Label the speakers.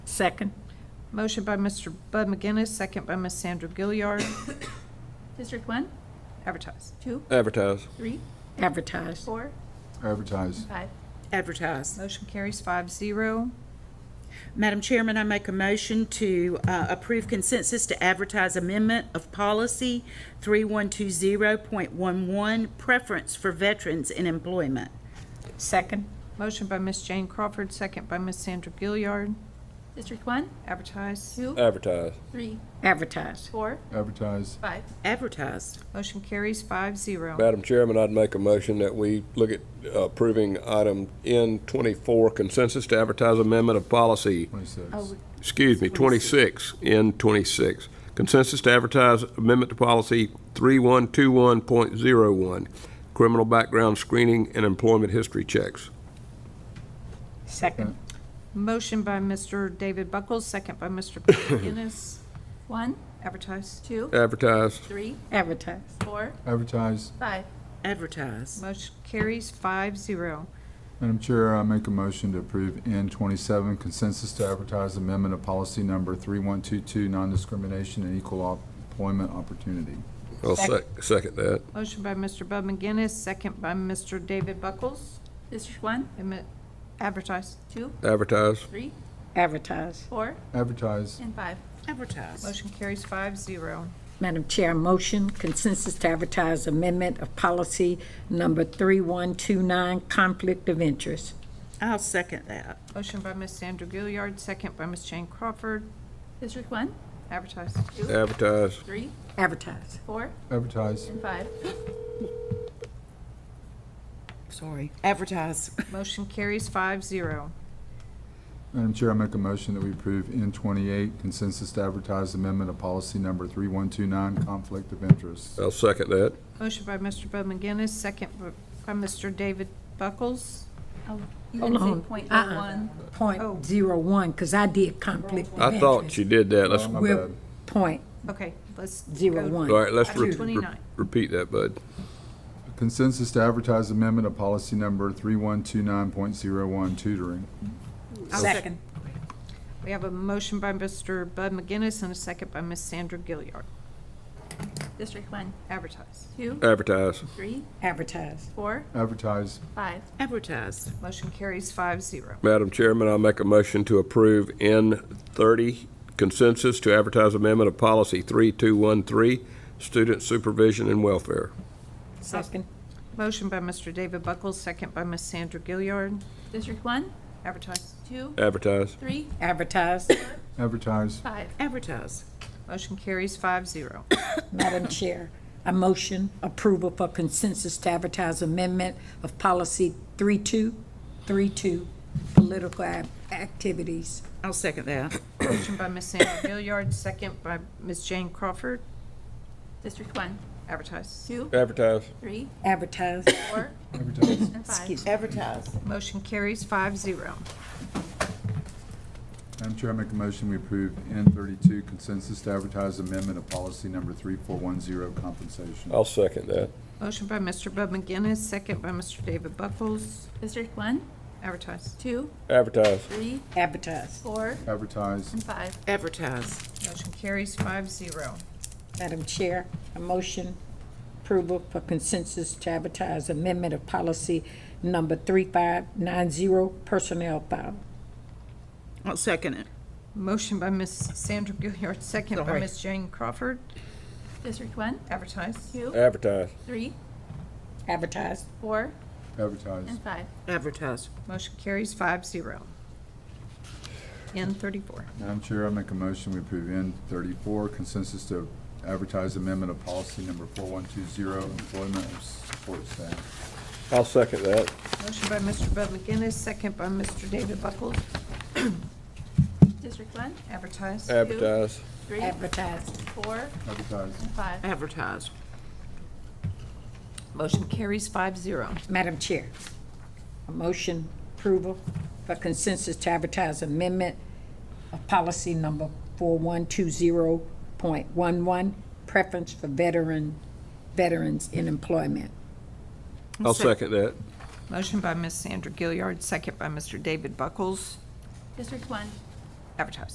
Speaker 1: Second.
Speaker 2: Motion by Mr. Bud McGinnis, second by Ms. Sandra Gilliard.
Speaker 3: District one,
Speaker 2: Advertise.
Speaker 3: two,
Speaker 4: Advertise.
Speaker 3: three,
Speaker 1: Advertise.
Speaker 3: four,
Speaker 5: Advertise.
Speaker 3: and five.
Speaker 6: Advertise.
Speaker 2: Motion carries five zero.
Speaker 6: Madam Chairman, I make a motion to uh, approve consensus to advertise amendment of policy 3120.11, preference for veterans in employment.
Speaker 1: Second.
Speaker 2: Motion by Ms. Jane Crawford, second by Ms. Sandra Gilliard.
Speaker 3: District one,
Speaker 2: Advertise.
Speaker 3: two,
Speaker 4: Advertise.
Speaker 3: three,
Speaker 1: Advertise.
Speaker 3: four,
Speaker 5: Advertise.
Speaker 3: five.
Speaker 6: Advertised.
Speaker 2: Motion carries five zero.
Speaker 4: Madam Chairman, I'd make a motion that we look at approving item N24 consensus to advertise amendment of policy,
Speaker 5: Twenty-six.
Speaker 4: excuse me, 26, N26. Consensus to advertise amendment to policy 3121.01, criminal background screening and employment history checks.
Speaker 1: Second.
Speaker 2: Motion by Mr. David Buckles, second by Mr. Bud McGinnis.
Speaker 3: One,
Speaker 2: Advertise.
Speaker 3: two,
Speaker 4: Advertise.
Speaker 3: three,
Speaker 1: Advertise.
Speaker 3: four,
Speaker 5: Advertise.
Speaker 3: five.
Speaker 6: Advertised.
Speaker 2: Motion carries five zero.
Speaker 5: Madam Chair, I make a motion to approve N twenty-seven consensus to advertise amendment of policy number three-one-two-two, non-discrimination and equal op- employment opportunity.
Speaker 4: I'll sec- second that.
Speaker 2: Motion by Mr. Bud McGinnis, second by Mr. David Buckles.
Speaker 3: District one,
Speaker 2: Admi- Advertise.
Speaker 3: two,
Speaker 4: Advertise.
Speaker 3: three,
Speaker 1: Advertise.
Speaker 3: four,
Speaker 5: Advertise.
Speaker 3: and five.
Speaker 6: Advertised.
Speaker 2: Motion carries five zero.
Speaker 1: Madam Chair, motion consensus to advertise amendment of policy number 3129, conflict of interest.
Speaker 6: I'll second that.
Speaker 2: Motion by Ms. Sandra Gilliard, second by Ms. Jane Crawford.
Speaker 3: District one,
Speaker 2: Advertise.
Speaker 3: two,
Speaker 4: Advertise.
Speaker 3: three,
Speaker 1: Advertise.
Speaker 3: four,
Speaker 5: Advertise.
Speaker 3: and five.
Speaker 6: Sorry. Advertised.
Speaker 2: Motion carries five zero.
Speaker 5: Madam Chair, I make a motion that we approve N twenty-eight consensus to advertise amendment of policy number three-one-two-nine, conflict of interest.
Speaker 4: I'll second that.
Speaker 2: Motion by Mr. Bud McGinnis, second by Mr. David Buckles.
Speaker 3: Oh, You
Speaker 1: Hold
Speaker 3: didn't say
Speaker 1: on.
Speaker 3: point
Speaker 1: Uh-uh.
Speaker 3: oh one.
Speaker 2: Oh.
Speaker 1: Point zero one, because I did conflict of interest.
Speaker 4: I thought you did that. Let's,
Speaker 5: Oh,
Speaker 4: all
Speaker 5: my
Speaker 1: We're-
Speaker 5: bad.
Speaker 1: Point
Speaker 2: Okay, let's.
Speaker 1: zero
Speaker 2: go-
Speaker 1: one.
Speaker 4: right, let's re- re-
Speaker 2: 29.
Speaker 4: repeat that, bud.
Speaker 5: Consensus to advertise amendment of policy number three-one-two-nine-point-zero-one, tutoring.
Speaker 1: Second.
Speaker 2: Oh, We have a motion by Mr. Bud McGinnis and a second by Ms. Sandra Gilliard.
Speaker 3: District one,
Speaker 2: Advertise.
Speaker 3: two,
Speaker 4: Advertise.
Speaker 3: three,
Speaker 1: Advertise.
Speaker 3: four,
Speaker 5: Advertise.
Speaker 3: five.
Speaker 6: Advertised.
Speaker 2: Motion carries five zero.
Speaker 4: Madam Chairman, I'll make a motion to approve N30 consensus to advertise amendment of policy 3213, student supervision and welfare.
Speaker 1: Second.
Speaker 2: Motion by Mr. David Buckles, second by Ms. Sandra Gilliard.
Speaker 3: District one,
Speaker 2: Advertise.
Speaker 3: two,
Speaker 4: Advertise.
Speaker 3: three,
Speaker 1: Advertise.
Speaker 5: Advertise.
Speaker 3: five.
Speaker 6: Advertised.
Speaker 2: Motion carries five zero.
Speaker 1: Madam Chair, I motion approval for consensus to advertise amendment of policy 3232, political ac- activities.
Speaker 6: I'll second that.
Speaker 2: Motion by Ms. Sandra Gilliard, second by Ms. Jane Crawford.
Speaker 3: District one,
Speaker 2: Advertise.
Speaker 3: two,
Speaker 4: Advertise.
Speaker 3: three,
Speaker 1: Advertise.
Speaker 3: four,
Speaker 5: Advertise.
Speaker 3: and five.
Speaker 1: Excuse me.
Speaker 6: Advertised.
Speaker 2: Motion carries five zero.
Speaker 5: Madam Chair, I make a motion we approve N thirty-two consensus to advertise amendment of policy number three-four-one-zero, compensation.
Speaker 4: I'll second that.
Speaker 2: Motion by Mr. Bud McGinnis, second by Mr. David Buckles.
Speaker 3: District one,
Speaker 2: Advertise.
Speaker 3: two,
Speaker 4: Advertise.
Speaker 3: three,
Speaker 1: Advertise.
Speaker 3: four,
Speaker 5: Advertise.
Speaker 3: and five.
Speaker 6: Advertised.
Speaker 2: Motion carries five zero.
Speaker 1: Madam Chair, I motion approval for consensus to advertise amendment of policy number 3590, personnel file.
Speaker 6: I'll second it.
Speaker 2: Motion by Ms. Sandra Gilliard, second by
Speaker 6: Sorry.
Speaker 2: Ms. Jane Crawford.
Speaker 3: District one,
Speaker 2: Advertise.
Speaker 3: two,
Speaker 4: Advertise.
Speaker 3: three,
Speaker 1: Advertise.
Speaker 3: four,
Speaker 5: Advertise.
Speaker 3: and five.
Speaker 6: Advertised.
Speaker 2: Motion carries five zero. N thirty-four.
Speaker 5: Madam Chair, I make a motion we approve N thirty-four consensus to advertise amendment of policy number four-one-two-zero, employment of support staff.
Speaker 4: I'll second that.
Speaker 2: Motion by Mr. Bud McGinnis, second by Mr. David Buckles.
Speaker 3: District one,
Speaker 2: Advertise.
Speaker 4: Advertise.
Speaker 3: three,
Speaker 1: Advertise.
Speaker 3: four,
Speaker 5: Advertise.
Speaker 3: and five.
Speaker 6: Advertised.
Speaker 2: Motion carries five zero.
Speaker 1: Madam Chair, a motion approval for consensus to advertise amendment of policy number 4120.11, preference for veteran, veterans in employment.
Speaker 4: I'll second that.
Speaker 2: Motion by Ms. Sandra Gilliard, second by Mr. David Buckles.
Speaker 3: District one,
Speaker 2: advertise.